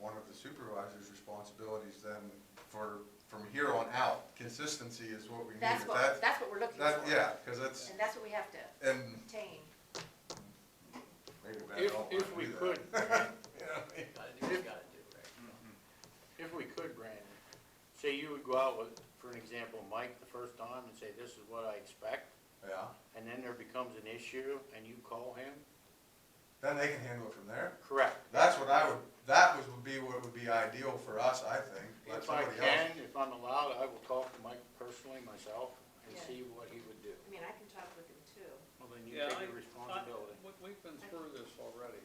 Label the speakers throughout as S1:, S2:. S1: one of the supervisor's responsibilities then for, from here on out, consistency is what we need.
S2: That's
S1: If
S2: what,
S1: that-
S2: that's what we're looking
S1: That,
S2: for.
S1: yeah, because that's,
S2: And that's what we have to
S1: and
S2: obtain.
S1: maybe we
S3: If,
S1: don't want to do that.
S3: if we could,
S1: You know what I mean?
S4: Gotta do what you gotta do, right?
S3: if we could, Brandon, say you would go out with, for an example, Mike the first time and say, this is what I expect,
S1: Yeah,
S3: and then there becomes an issue and you call him?
S1: then they can handle it from there.
S3: Correct.
S1: That's what I would, that was, would be what would be ideal for us, I think. Let
S3: If I
S1: somebody else.
S3: can, if I'm allowed, I will talk to Mike personally myself and
S2: Yeah.
S3: see what he would do.
S2: I mean, I can talk with them too.
S3: Well, then you
S5: Yeah,
S3: take
S5: I-
S3: your responsibility.
S5: We, we've been through this already.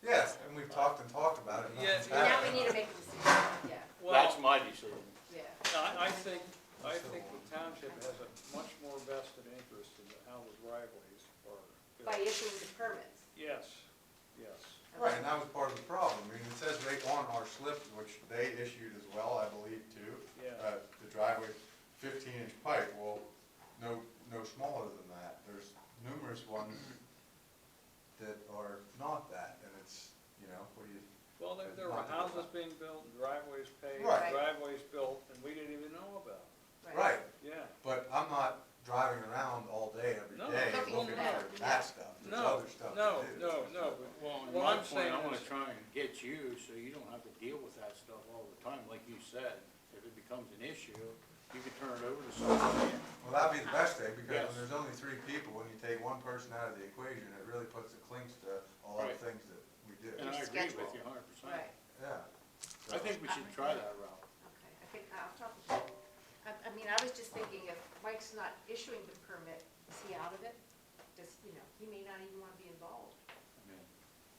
S1: Yes, and we've talked and talked about it. nothing's
S5: Yeah.
S2: Now we
S1: happened.
S2: need to make a decision, yeah,
S5: Well,
S3: That's my decision.
S2: yeah.
S5: I, I think, I think the township has a much more vested interest in how the driveways are.
S2: By issuing the permits.
S5: Yes, yes.
S1: Right, and that was part of the problem. I mean, it says right on our slip, which they issued as well, I believe, too.
S5: Yeah.
S1: Uh, the driveway fifteen inch pipe, well, no, no smaller than that. There's numerous ones that are not that, and it's, you know, what do you,
S5: Well, there, there were houses being built, and driveways paved,
S1: Right.
S5: driveways built, and we didn't even know about.
S1: right,
S5: Yeah,
S1: but I'm not driving around all day every
S5: No,
S1: day
S2: Looking
S1: looking
S2: for
S1: for
S2: that.
S1: that stuff. There's
S5: no,
S1: other stuff to
S5: no,
S1: do.
S5: no, no, but
S3: Well, in
S5: What
S3: my
S5: I'm saying
S3: point, I wanna
S5: is-
S3: try and get you, so you don't have to deal with that stuff all the time, like you said. If it becomes an issue, you can turn it over to somebody.
S1: Well, that'd be the best day, because
S3: Yes.
S1: when there's only three people, when you take one person out of the equation, it really puts the clinks to all the
S3: Right.
S1: things that we do.
S3: And I
S2: Your
S3: agree with
S2: schedule.
S3: you hundred percent.
S2: Right,
S1: Yeah.
S3: I think we should try that route.
S2: okay, I think, I'll talk with them. I, I mean, I was just thinking if Mike's not issuing the permit, is he out of it? Does, you know, he may not even wanna be involved.
S3: I mean,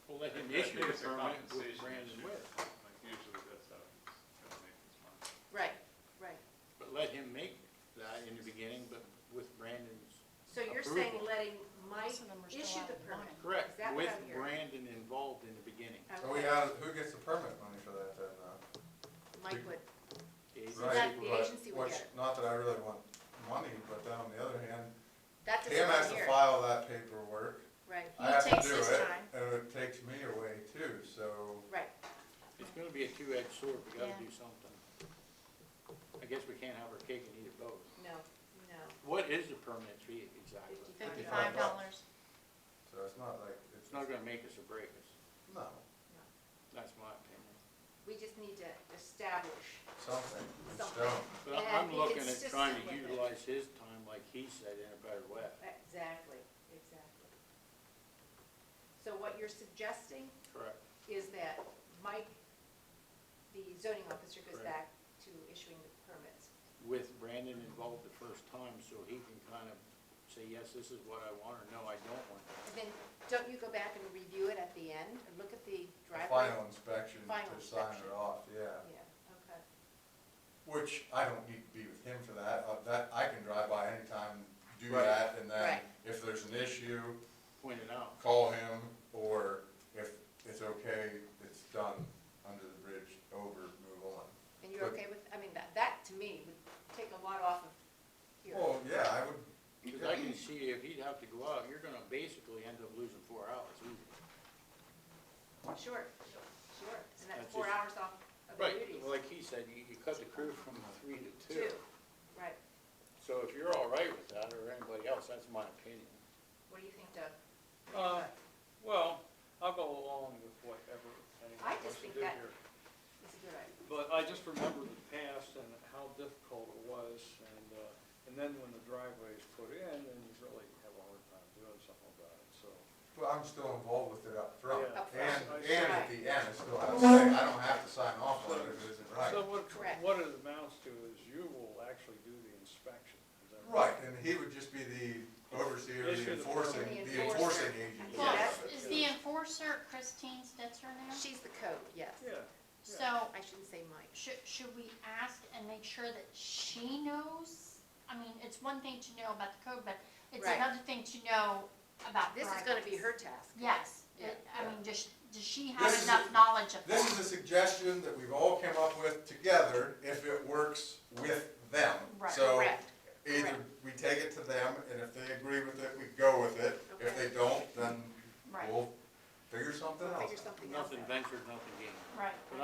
S3: We'll let him
S6: I think
S3: issue the
S6: it's a
S3: permit with
S6: compensation
S3: Brandon
S6: issue.
S3: with,
S6: Like usually that's how it's gonna make its money.
S2: Right, right.
S3: but let him make that in the beginning, but with Brandon's,
S2: So you're saying
S3: Approval.
S2: letting Mike
S7: Some of them are still
S2: issue
S7: out
S2: the
S7: of
S2: permit?
S7: line.
S2: Is
S3: correct,
S2: that what
S3: with
S2: I'm hearing?
S3: Brandon involved in the beginning.
S1: So we
S2: Okay.
S1: have, who gets the permit money for that then, uh?
S2: Mike would,
S3: Is-
S2: Right. that the
S1: but-
S2: agency would
S1: which-
S2: get it.
S1: Not that I really want money, but then on the other hand,
S2: that doesn't
S1: Cam has to
S2: appear,
S1: file that paperwork.
S2: right,
S1: I
S7: He
S1: have to
S7: takes
S1: do
S7: his
S1: it,
S7: time.
S1: and it takes me away too, so,
S2: right.
S3: It's gonna be a two-edged sword, we gotta
S7: Yeah.
S3: do something. I guess we can't have our cake and eat it both.
S2: No, no.
S3: What is the permit fee exactly?
S1: Fifty
S7: Fifty-five dollars.
S1: so it's not like, it's,
S3: It's not gonna make us or break us,
S1: no,
S3: that's my opinion.
S2: We just need to establish.
S1: something, it's
S2: Something.
S1: stone.
S3: But
S2: And
S3: I'm
S2: be
S3: looking at trying to
S2: consistent with it.
S3: utilize his time, like he said, in a better way.
S2: Exactly, exactly. So what you're suggesting
S3: Correct.
S2: is that Mike, the zoning officer, goes
S3: Right.
S2: back to issuing the permits.
S3: With Brandon involved the first time, so he can kind of say, yes, this is what I want, or no, I don't want. that."
S2: And then, don't you go back and review it at the end and look at the
S1: The
S2: driveway?
S1: Final inspection
S2: Final
S1: to sign
S2: inspection.
S1: it off, yeah.
S2: Yeah, okay.
S1: Which I don't need to be with him for that, uh, that, I can drive by anytime, do
S3: Right.
S1: that, and then
S2: Right.
S1: if there's an issue,
S3: Point it out.
S1: call him, or if it's okay, it's done, under the bridge, over, move on.
S2: And you're
S1: But-
S2: okay with, I mean, that, that to me would take a lot off of here.
S1: Well, yeah, I would,
S3: Because I can see if he'd have to go out, you're gonna basically end up losing four hours easy.
S2: Sure, sure. And that's
S3: That's
S2: four
S3: just-
S2: hours off of the
S3: Right,
S2: duties.
S3: like he said, you, you cut the crew from three to two.
S2: Two, right.
S3: So if you're all right with that, or anybody else, that's my opinion.
S2: What do you think, Doug?
S5: Uh, well, I'll go along with whatever
S2: I
S5: anyone
S2: just
S5: wants to
S2: think
S5: do
S2: that-
S5: here.
S2: It's a good idea.
S5: But I just remember the past and how difficult it was, and, uh, and then when the driveway is put in, then you really have a hard time doing something about it, so.
S1: well, I'm still involved with it up front,
S5: Yeah.
S2: Up
S1: and,
S5: front.
S1: and at the end, I still have to say, I don't have to sign off on it if it isn't
S5: So
S1: right.
S5: what,
S2: Correct.
S5: what it amounts to is you will actually do the inspection. is that
S1: Right, and he would just be the overseer,
S5: Issue
S1: the
S5: the
S1: enforcing,
S2: permit.
S1: the enforcing
S2: Enforcer.
S1: agent.
S7: Well,
S2: Yes.
S7: is the enforcer Christine Stetzer now?
S2: She's the code, yes.
S5: Yeah,
S7: So,
S2: I shouldn't say Mike.
S7: should, should we ask and make sure that she knows? I mean, it's one thing to know about the code, but it's
S2: Right.
S7: another thing to know about
S2: This is gonna be
S7: driveways.
S2: her task.
S7: Yes,
S2: Yeah.
S7: It- I mean, does, does she
S1: This
S7: have
S1: is
S7: enough
S1: a-
S7: knowledge of
S1: This is
S7: that?
S1: a suggestion that we've all come up with together, if it works with them.
S7: Right.
S1: So
S2: Correct.
S1: either
S2: correct.
S1: we take it to them, and if they agree with it, we go with it. If
S2: Okay.
S1: they don't, then
S7: Right,
S1: we'll figure something else out.
S2: Figure something else
S3: Nothing
S2: out.
S3: ventured, nothing gained.
S7: right.